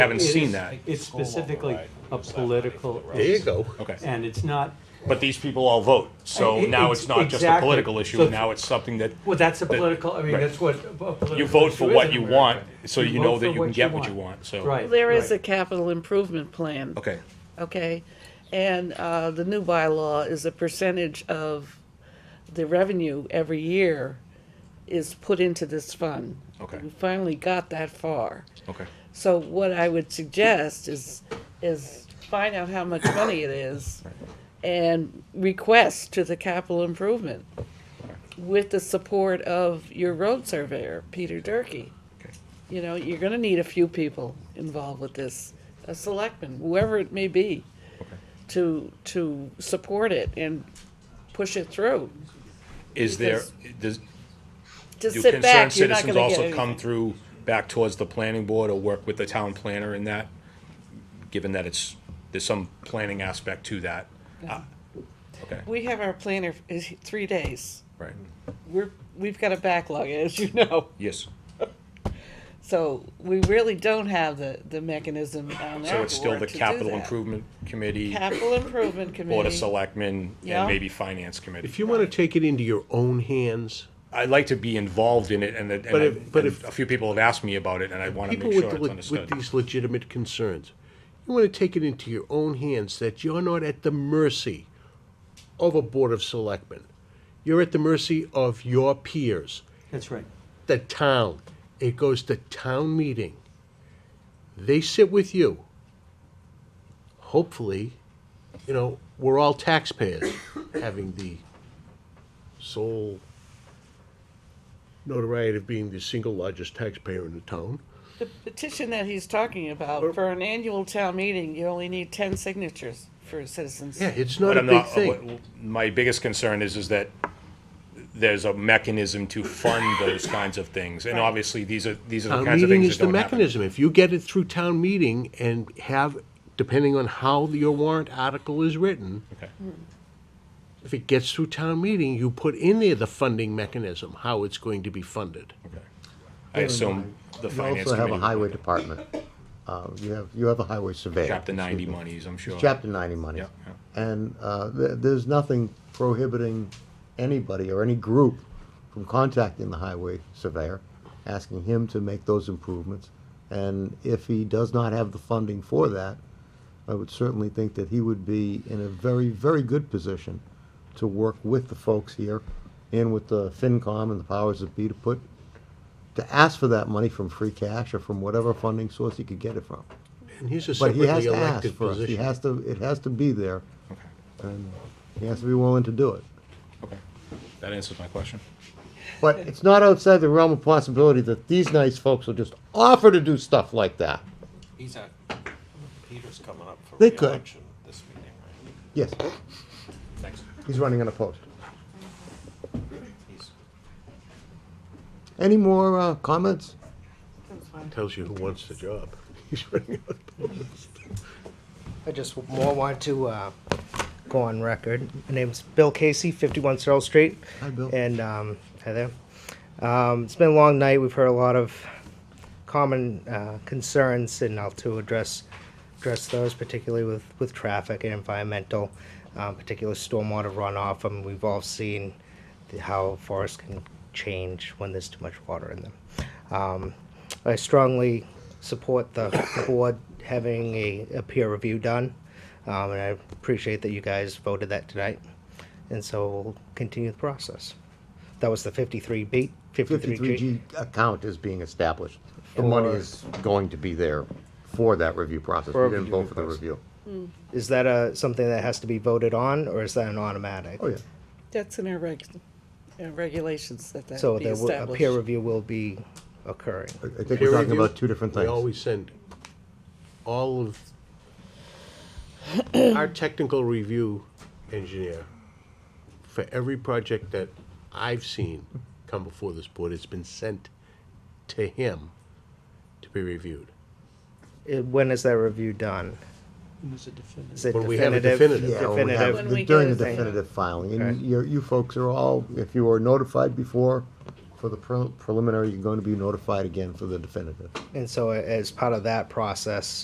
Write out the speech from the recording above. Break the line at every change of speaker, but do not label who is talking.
haven't
It is-
seen that.
It's specifically a political
There
issue.
There you go.
Okay.
And it's not,
But these people all vote, so
I- I-
now
ex-
it's not just a
exactly.
political issue,
So-
now it's something that,
well, that's a political, I mean,
right.
that's what a political
you vote for
issue is
what
in
you
America.
want, so you know
vote
that
for
you can get what you want, so.
Right.
There is a
right.
capital improvement plan.
Okay,
Okay, and uh, the new bylaw is a percentage of the revenue every year is put into this fund.
Okay.
We finally got that far.
okay.
So what I would suggest is, is find out how much money it is and request to the capital improvement with the support of your road surveyor, Peter Durkey.
Okay.
You know, you're gonna need a few people involved with this, a selectman, whoever it may be, to, to support it and push it through.
Is there, does,
Just
do
sit
concerned
back, you're not
citizens
gonna get
also come
anything.
through back towards the planning board or work with the town planner in that? Given that it's, there's some planning aspect to that. Ah, Okay,
We have our planner, is three days.
right,
We're, we've got a backlog, as you know.
yes,
So we really don't have the, the mechanism on
so
our
it's still
board
the
to do
capital
that.
improvement committee,
Capital Improvement
board of
Committee.
selectmen,
Yeah.
and maybe finance committee.
If you want to take it into your own hands,
I'd like to be involved in it, and, it- and,
But
I-
if- but
and
if-
a few people have asked me about it, and I want to
people
make sure
with, the
it's
le- with
understood.
these legitimate concerns, you want to take it into your own hands that you're not at the mercy of a board of selectmen. You're at the mercy of your peers,
That's right.
the town. It goes to town meeting. They sit with you. Hopefully, you know, we're all taxpayers having the sole notoriety of being the single largest taxpayer in the town.
The petition that he's talking about, for an annual town meeting, you only need ten signatures for citizens.
Yeah, it's
But
not a
I'm
big
not- uh,
thing.
what- My biggest concern is, is that there's a mechanism to fund those kinds of things, and obviously, these are, these are the
Town
kinds of
meeting
things
is
that
the
don't happen.
mechanism. If you get it through town meeting and have, depending on how your warrant article is written,
Okay.
if it gets through town meeting, you put in there the funding mechanism, how it's going to be funded.
I assume the
You
finance
also have a
committee,
highway department. Uh, You have, you have a highway surveyor.
chapter ninety
excuse me.
monies, I'm sure.
Chapter 90 money.
Yeah, yeah.
And uh, there- there's nothing prohibiting anybody or any group from contacting the highway surveyor, asking him to make those improvements. And if he does not have the funding for that, I would certainly think that he would be in a very, very good position to work with the folks here and with the FinCom and the powers that be to put, to ask for that money from free cash or from whatever funding source he could get it from.
And he's a
But he
separately
has to ask
elected
for it. He
position.
has to, it has to be there. And he has to be willing to do it.
Okay. That answers my question.
But it's not outside the realm of possibility that these nice folks will just offer to do stuff like that.
He's at, Peter's coming up for
They could.
reelection this meeting, right?
Yes,
Thanks.
he's running unopposed.
He's-
Any more uh, comments?
Tells you who wants the job.
I just more want to uh, go on record. My name's Bill Casey, 51 Searle Street.
Hi, Bill.
And um, hi there. Um, it's been a long night. We've heard a lot of common uh, concerns, and I'll to address address those, particularly with with traffic and environmental, um, particular stormwater runoff. I mean, we've all seen the, how forests can change when there's too much water in them. Um, I strongly support the the board having a, a peer review done, um, and I appreciate that you guys voted that tonight, and so we'll continue the process. That was the 53B, 53G.
53G account is being established. The money
For-
is going to be there for that review process.
For
We didn't
review
vote for the
process.
review.
Is that a, something that has to be voted on, or is that an automatic?
Oh, yeah.
That's in our reg, our regulations that that
So
be
there will, a
established.
peer review will be occurring.
I I think we're talking about two different
We
things.
always send all of our technical review engineer for every project that I've seen come before this board, it's been sent to him to be reviewed.
Uh, When is that review done?
There's a definitive.
Is it
When we have a
definitive?
definitive.
Yeah, when we have-
When we
During the
get it.
definitive filing, and
Okay.
you, you folks are all, if you were notified before for the pre- preliminary, you're going to be notified again for the definitive.
And so a- as part of that process,